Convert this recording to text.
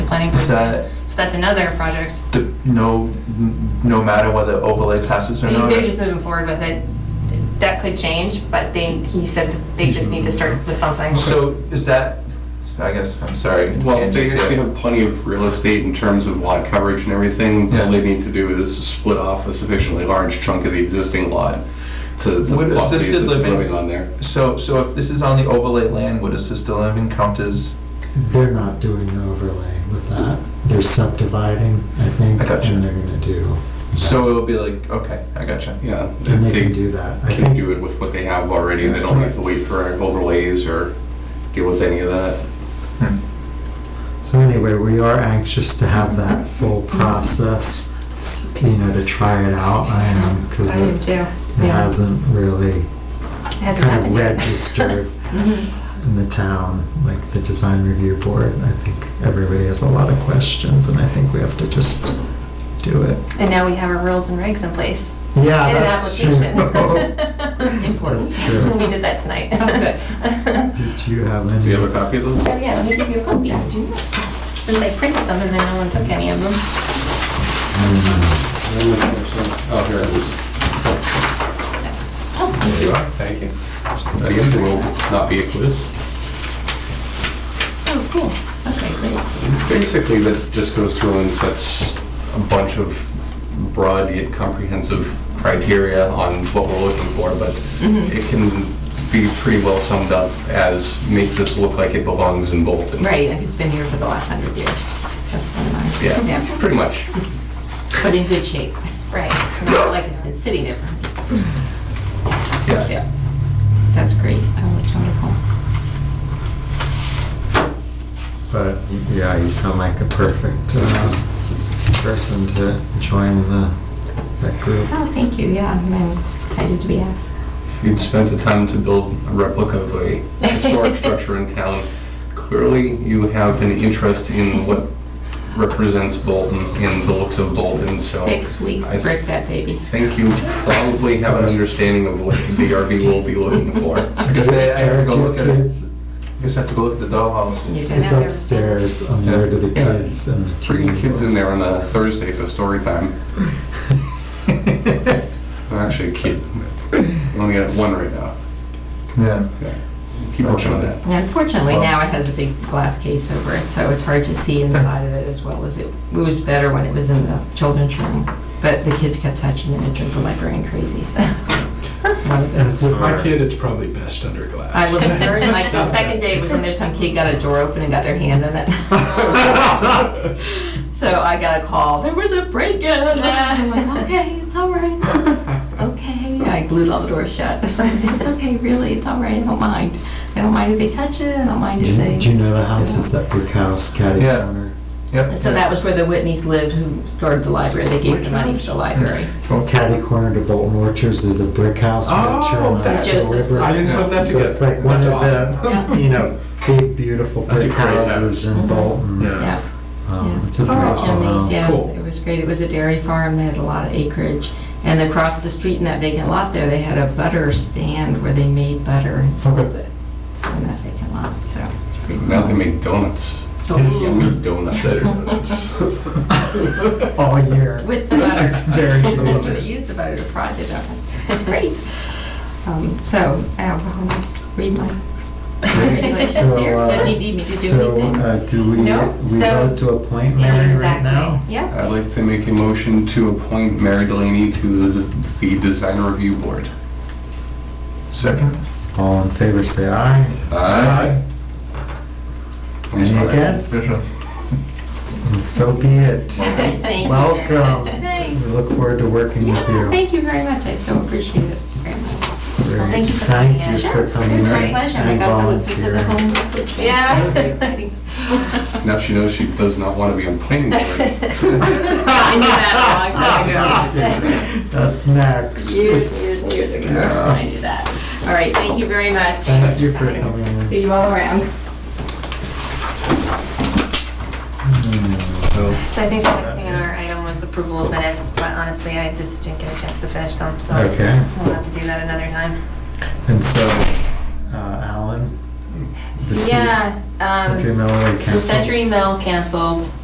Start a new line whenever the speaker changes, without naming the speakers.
planning
Is
consent.
that,
So that's another project.
d- no, n- no matter whether overlay passes or not?
They're just moving forward with it. That could change, but they, he said that they just need to start with something.
So is that, so I guess, I'm sorry.
Well,
tangents
they actually
here.
have plenty of real estate in terms of lot coverage and everything.
Yeah.
All they need to do is split off a sufficiently large chunk of the existing lot to to
Would
lot the
assisted
assisted
living-
living on there.
So, so if this is on the overlay land, would assisted living count as,
They're not doing the overlay with that. They're subdividing, I think,
I gotcha.
and they're gonna do. that.
so it'll be like, okay, I gotcha.
Yeah.
And they can do that. I
Can
think
do it with what they have already. They don't have to wait for overlays or deal with any of that.
Hmm.
So anyway, we are anxious to have that full process, s- you know, to try it out. I am, because
I do
it
too.
it
Yeah.
hasn't really
It hasn't
kind of
happened yet.
registered
Mhm.
in the town, like the design review board. I think everybody has a lot of questions and I think we have to just do it.
And now we have our rules and regs in place.
Yeah,
And an
that's true.
application.
Important.
That's true.
We did that tonight.
Oh, good.
Did you have any?
Do you have a copy of those?
Oh, yeah, let me give you a copy. Do you? Since I printed them and then no one took any of them.
I don't know.
Oh, here it is.
Oh, thank
There you
you.
are. Thank you. I guess it will not be a quiz.
Oh, cool. Okay, great.
Basically, that just goes through and sets a bunch of broad yet comprehensive criteria on what we're looking for, but
Mm-hmm.
it can be pretty well summed up as make this look like it belongs in Bolton.
Right, like it's been here for the last hundred years. That's kind of nice.
Yeah, pretty much.
But in good shape,
Right.
not like it's been sitting there. for-
Yeah.
Yeah. That's great. Oh, that's wonderful.
But yeah, you sound like a perfect uh, person to join the that group.
Oh, thank you, yeah, I'm excited to be asked.
If you'd spent the time to build a replica of a historic structure in town, clearly you have an interest in what represents Bolton and the looks of Bolton, so.
Six weeks to
I
break that baby.
think you probably have an understanding of what the BRB will be looking for.
I guess I I have to go look at it.
It's,
I guess I have to go look at the dollhouse.
You did
it's
that.
upstairs on the way to the
Yeah.
kids and the
Bring
teen
the kids in there
groups.
on a Thursday for story time. I'm actually a kid. I only got one right now.
Yeah.
Okay. Keep working on that.
Yeah, Unfortunately, now it has a big glass case over it, so it's hard to see inside of it as well as it, it was better when it was in the children's room. But the kids kept touching it and drove the librarian crazy, so.
It's
With my
hard.
kid, it's probably best under glass.
I looked at her and like the second day it was in there, some kid got a door open and got their hand in it. So I got a call, there was a break-in. I'm like, okay, it's all right. It's okay. I glued all the doors shut. It's okay, really, it's all right, I don't mind. I don't mind if they touch it, I don't mind
Do
if
you, do you
they.
know the house is that brick house, catty
Yeah.
corner?
Yep.
So that was where the Whitneys lived who stored the library, they gave the money for the library.
Cool.
Catty corner to Bolton Orchards, there's a brick house. with a
Oh,
turn on
that's-
the
Joseph's
river.
I didn't put that
So
together.
it's like one
That's
of
awesome.
the, you know, big beautiful
That's a
brick
great house.
houses in
Mhm.
Bolton.
Yeah.
Yeah.
Um,
Yeah.
It's a
Oh,
beautiful house.
Yeah,
Cool.
it was great. It was a dairy farm. They had a lot of acreage. And across the street in that vacant lot there, they had a butter stand where they made butter and sold
Okay.
it in that vacant lot, so. it's pretty
Now they make donuts.
cool.
Yummy donuts.
All year.
With the butter.
It's very
They
delicious.
used the butter to fry the donuts. It's great. Um, So, I'll go home and read my regulations
So,
here.
uh,
Did you need me to do
So,
anything?
uh, do we,
No,
we
so-
vote to appoint Mary right now?
Exactly. Yep.
I'd like to make a motion to appoint Mary Delaney to the the Design Review Board.
Second?
All in favor, say aye.
Aye. I'm
Any
sorry.
against? And So be it.
Thank you.
Welcome. We
Thanks.
look forward to working with
Yeah,
you.
thank you very much. I so appreciate it very much.
Very-
thank you for coming in.
Thank you
Sure,
for
it was
coming in.
It's my pleasure.
and volunteering.
Yeah.
Now she knows she does not want to be on planning board.
I knew that a long time ago.
That's next.
Years, years, years ago, I knew that. All right, thank you very much.
Thank you for coming in.
See you all around.
Hmm.
So
So I think the next thing on our item was approval of minutes, but honestly, I just didn't get a chance to finish them, so
Okay.
we'll have to do that another time.
And so, uh, Alan? the
Yeah,
Century
um,
Miller
so
Council.
Century Mill canceled.